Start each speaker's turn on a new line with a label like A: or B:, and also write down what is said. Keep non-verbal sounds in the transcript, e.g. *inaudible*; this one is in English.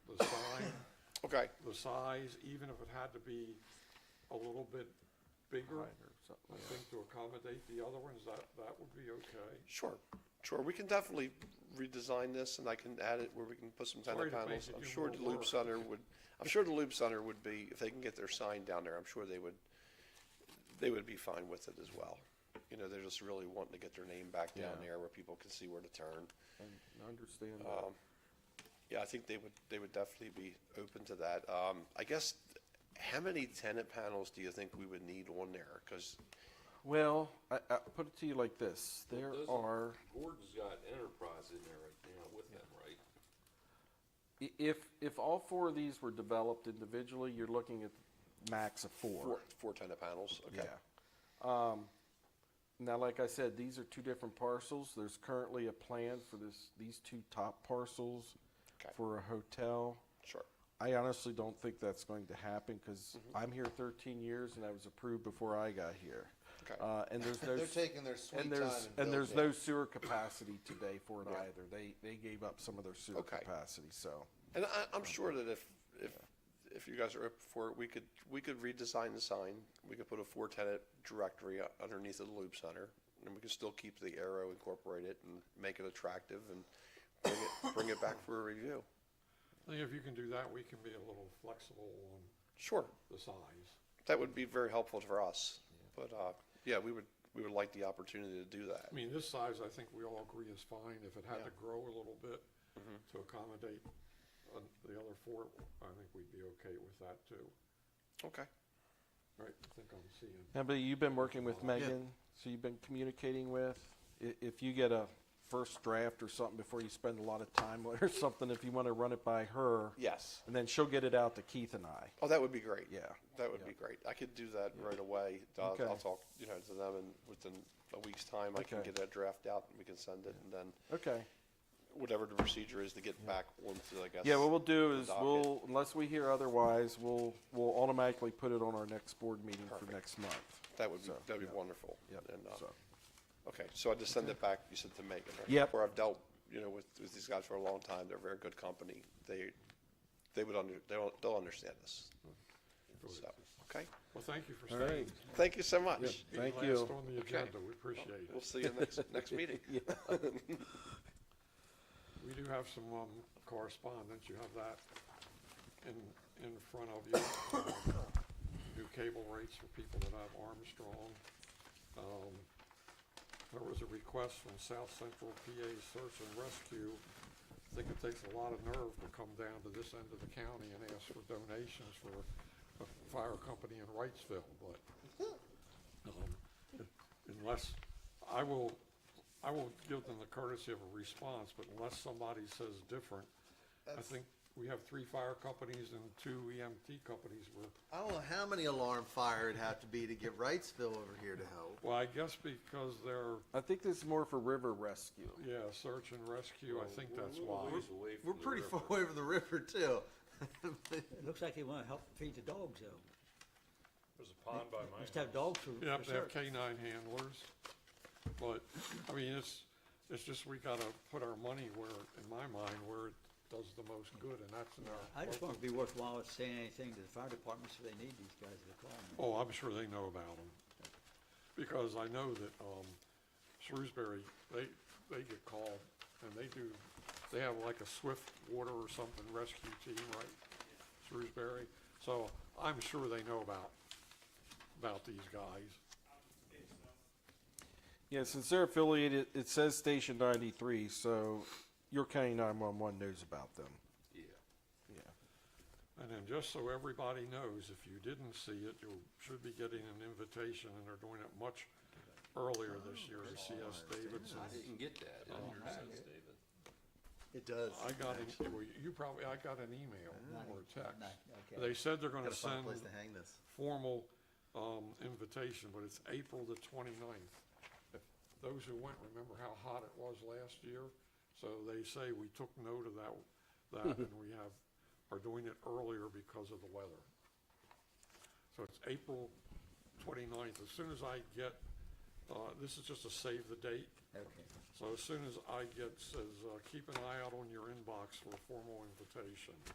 A: Okay,
B: the size, even if it had to be a little bit bigger, I think to accommodate the other ones, that, that would be okay.
A: sure, sure, we can definitely redesign this, and I can add it where we can put some
B: Sorry
A: tenant
B: to make
A: panels.
B: you
A: I'm
B: do
A: sure
B: more
A: the Loop
B: work.
A: Center would, I'm sure the Loop Center would be, if they can get their sign down there, I'm sure they would, they would be fine with it as well. You know, they're just really wanting to get their name back down
C: Yeah.
A: there where people can see where to turn.
C: I understand that.
A: Um, Yeah, I think they would, they would definitely be open to that. Um, I guess, how many tenant panels do you think we would need on there? Because,
C: Well, I, I put it to you like this, there
D: Those-
C: are,
D: Gordon's got Enterprise in there right now with them, right?
C: i- if, if all four of these were developed individually, you're looking at max of
A: four, four tenant panels,
C: Yeah.
A: okay.
C: Um, now, like I said, these are two different parcels. There's currently a plan for this, these two top parcels
A: Okay.
C: for a hotel.
A: Sure,
C: I honestly don't think that's going to happen because
A: Mm-hmm.
C: I'm here 13 years and I was approved before I got here.
A: Okay.
C: Uh, and there's no
E: They're
C: s-
E: taking their sweet
C: and there's
E: time and
C: and there's
E: building.
C: no sewer capacity today for it either. They they gave up some of their sewer
A: Okay.
C: capacity. So
A: and I, I'm sure that if, if, if you guys are up for it, we could, we could redesign the sign. We could put a four tenant directory u- underneath the Loop Center, and we could still keep the arrow incorporated and make it attractive and bring it, bring it back for a review.
B: I think if you can do that, we can be a little flexible on
A: Sure.
B: the size.
A: That would be very helpful for us, but, uh, yeah, we would, we would like the opportunity to do that.
B: I mean, this size, I think we all agree is fine, if it had to grow a little bit
C: Mm-hmm.
B: to accommodate uh, the other four, I think we'd be okay with that too.
A: Okay.
B: Right, I think I'm seeing,
C: now, but you've been working with Megan. So you've been communicating with. I- If you get a first draft or something before you spend a lot of time *laughs* or something, if you want to run it by her,
A: Yes.
C: and then she'll get it out to Keith and I.
A: Oh, that would be great.
C: Yeah.
A: That would be great. I could do that right away. I'll, I'll
C: Okay.
A: talk, you know, to them and within a week's time, I can
C: Okay.
A: get that draft out and we can send it and then
C: Okay.
A: whatever the procedure is to get back onto, I guess.
C: Yeah, what we'll do
A: the
C: is
A: docket.
C: we'll, unless we hear otherwise, we'll, we'll automatically put it on our next board meeting for next month.
A: That would be,
C: So,
A: that'd
C: yeah.
A: be wonderful.
C: Yep,
A: And, uh,
C: so.
A: Okay, so I just send it back, you said to Megan, right?
C: Yep.
A: Where I've dealt, you know, with, with these guys for a long time. They're a very good company. They, they would under, they'll, they'll understand this.
C: Hmm.
A: So, okay.
B: well, thank you for
C: All
B: staying.
C: right.
A: Thank you so much.
B: Being
C: Thank
B: Last
C: you.
B: on the agenda, we appreciate
A: We'll
B: it.
A: see you next, next meeting.
B: We do have some um, correspondence, you have that in, in front of you. Um, New cable rates for people that have Armstrong. Um, There was a request from South Central PA Search and Rescue. I think it takes a lot of nerve to come down to this end of the county and ask for donations for a fire company in Wrightsville, but um, unless, I will, I will give them the courtesy of a response, but unless somebody says different, I think we have three fire companies and two EMT companies. We're,
E: I don't know how many alarm fire it'd have to be to get Wrightsville over here to help.
B: well, I guess because they're,
C: I think this is more for river rescue.
B: yeah, search and rescue, I think that's why.
E: We're pretty far *laughs* away from the river too.
F: It looks like they wanna help feed the dogs though.
G: There's a pond by my
F: Must have dogs for,
B: Yep,
F: for
B: they have
F: search.
B: canine handlers. But, I mean, it's, it's just we gotta put our money where, in my mind, where it does the most good, and that's in our.
F: I just
B: local-
F: want to be worthwhile at saying anything to the fire department so they need these guys to call me.
B: Oh, I'm sure they know about them. Because I know that, um, Shrewsbury, they, they get called and they do, they have like a swift water or something rescue team, right? Shrewsbury. So I'm sure they know about, about these guys.
C: Yeah, since they're affiliated, it says Station ninety-three, so your county nine-one-one knows about them.
D: Yeah.
C: Yeah.
B: And then just so everybody knows, if you didn't see it, you should be getting an invitation and they're doing it much earlier this year. CS Davidson.
D: I didn't get that. in your sense, David.
E: It does.
B: I got an, well, you probably, I got an email or a text.
F: No, okay.
B: They said they're gonna
E: Gotta find
B: send
E: a place to hang this.
B: formal, um, invitation, but it's April the twenty-ninth. Those who went remember how hot it was last year, so they say we took note of that,
E: *laughs*
B: that, and we have, are doing it earlier because of the weather. So it's April 29th. As soon as I get, uh, this is just a save the date.
F: Okay.
B: So as soon as I get, says, uh, keep an eye out on your inbox for a formal invitation.